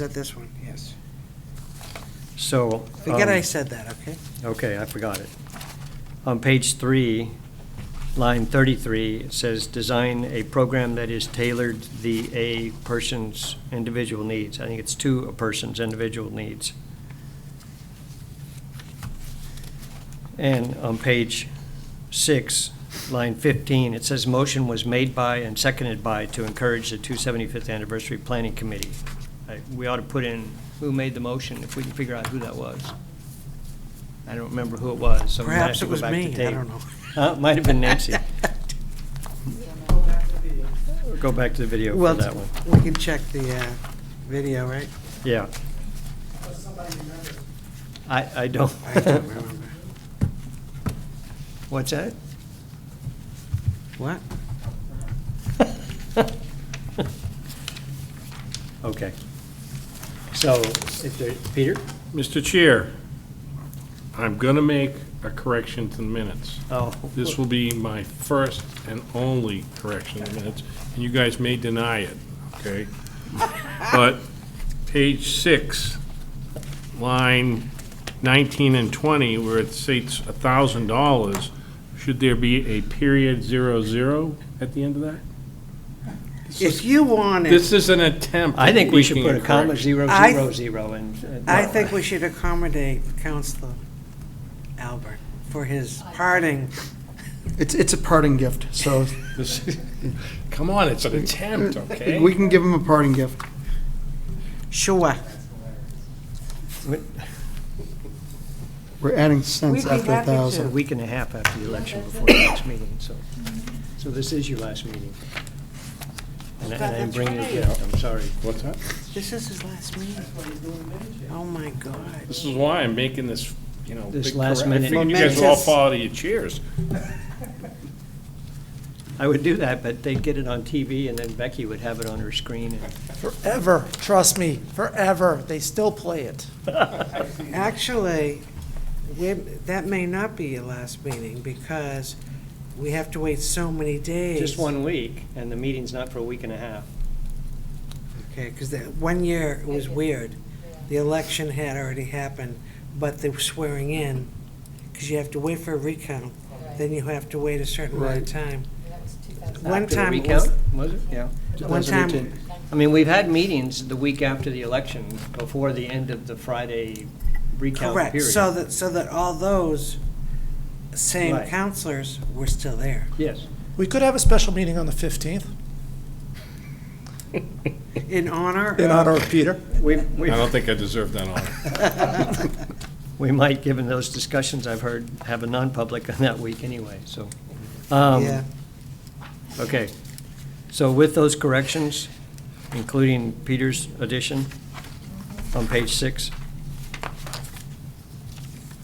Said this one, yes. So. Forget um, I said that, okay? Okay, I forgot it. On page three, line 33, it says, "Design a program that is tailored to the a person's individual needs." I think it's to a person's individual needs. And on page six, line 15, it says, "Motion was made by and seconded by to encourage the 275th Anniversary Planning Committee." I- We ought to put in who made the motion, if we can figure out who that was. I don't remember who it was, so we might have Perhaps to it go was back to me, tape. I don't know. Huh? It might have been Nancy. Go back to the video for Well, that one. we can check the uh, video, right? Yeah. I, I don't. I don't remember. What's that? What? Okay. So, if there, Peter? Mr. Chair, I'm going to make a correction to the minutes. Oh, This will be my first and only correction to the minutes, and you guys may deny it, okay? But page six, line 19 and 20, where it states $1,000, should there be a period zero zero at the end of that? If you wanted, This is an attempt I at think we should making put a comma, correction. zero, I- zero, zero, uh, and. I think we should accommodate Counselor Albert for his parting. It's, it's a parting gift, so This- Come on, it's an attempt, okay? we can give him a parting gift. Sure. Wait, We're adding We'd cents be after a happy to. A thousand. week and a half after the election before the next meeting, so, so this is your last meeting. And I- and I'm That's bringing it right. down, I'm sorry. What's that? This is his last meeting. Oh, my God. This is why I'm making this, you know. This big last correct- minute- I figured you guys would all Momentous. fall out of your chairs. I would do that, but they'd get it on TV, and then Becky would have it on her screen, and Forever, trust me, forever. They still play it. Actually, we- that may not be your last meeting because we have to wait so many days. just one week, and the meeting's not for a week and a half. Okay, because that, one year it was weird. The election had already happened, but they were swearing in, because you have to wait for a recount, then you have to wait a certain amount of time. One After the time it was- recount, Was it? Yeah. One time, 2018. I mean, we've had meetings the week after the election, before the end of the Friday recount period. correct, so that, so that all those same Right. counselors were still there. Yes. We could have a special meeting on the 15th. In honor In of honor of Peter. We, I we, don't think I deserve that honor. we might, given those discussions I've heard, have a non-public on that week anyway, so. um, Yeah. Okay. So with those corrections, including Peter's addition on page six,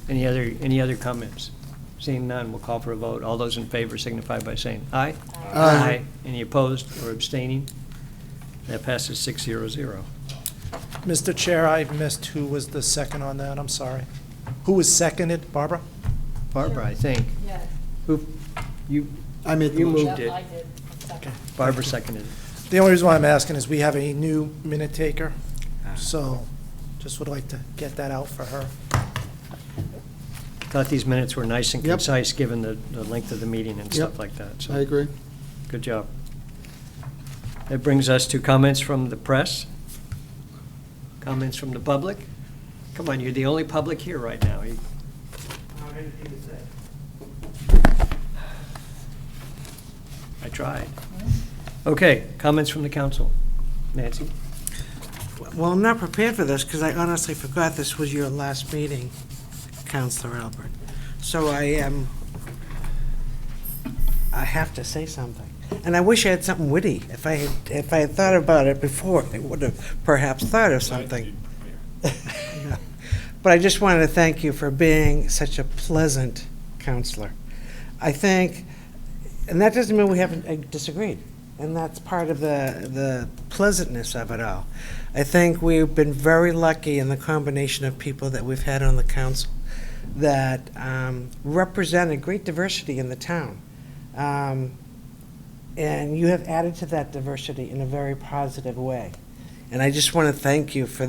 any other, any other comments? Seeing none, we'll call for a vote. All those in favor signify by saying aye. Aye. Any opposed or abstaining? That passes six zero zero. Mr. Chair, I missed who was the second on that. I'm sorry. Who was seconded? Barbara? Barbara, I think. Yeah, Who, you, I made the You motion. moved it. I did. Second. Barbara seconded it. The only reason why I'm asking is we have a new minute taker, so just would like to get that out for her. Thought these minutes were nice and Yep. concise, given the, the length of the meeting and stuff Yep. like that, so. I agree. Good job. That brings us to comments from the press, comments from the public. Come on, you're the only public here right now. You- I tried. Okay, comments from the council. Nancy? Well, I'm not prepared for this because I honestly forgot this was your last meeting, Counselor Albert. So I am, I have to say something. And I wish I had something witty. If I, had if I had thought about it before, I would have perhaps thought of something. But I just wanted to thank you for being such a pleasant counselor. I think, and that doesn't mean we haven't uh, disagreed, and that's part of the, the pleasantness of it all. I think we've been very lucky in the combination of people that we've had on the council that um, represented great diversity in the town. Um, And you have added to that diversity in a very positive way. And I just want to thank you for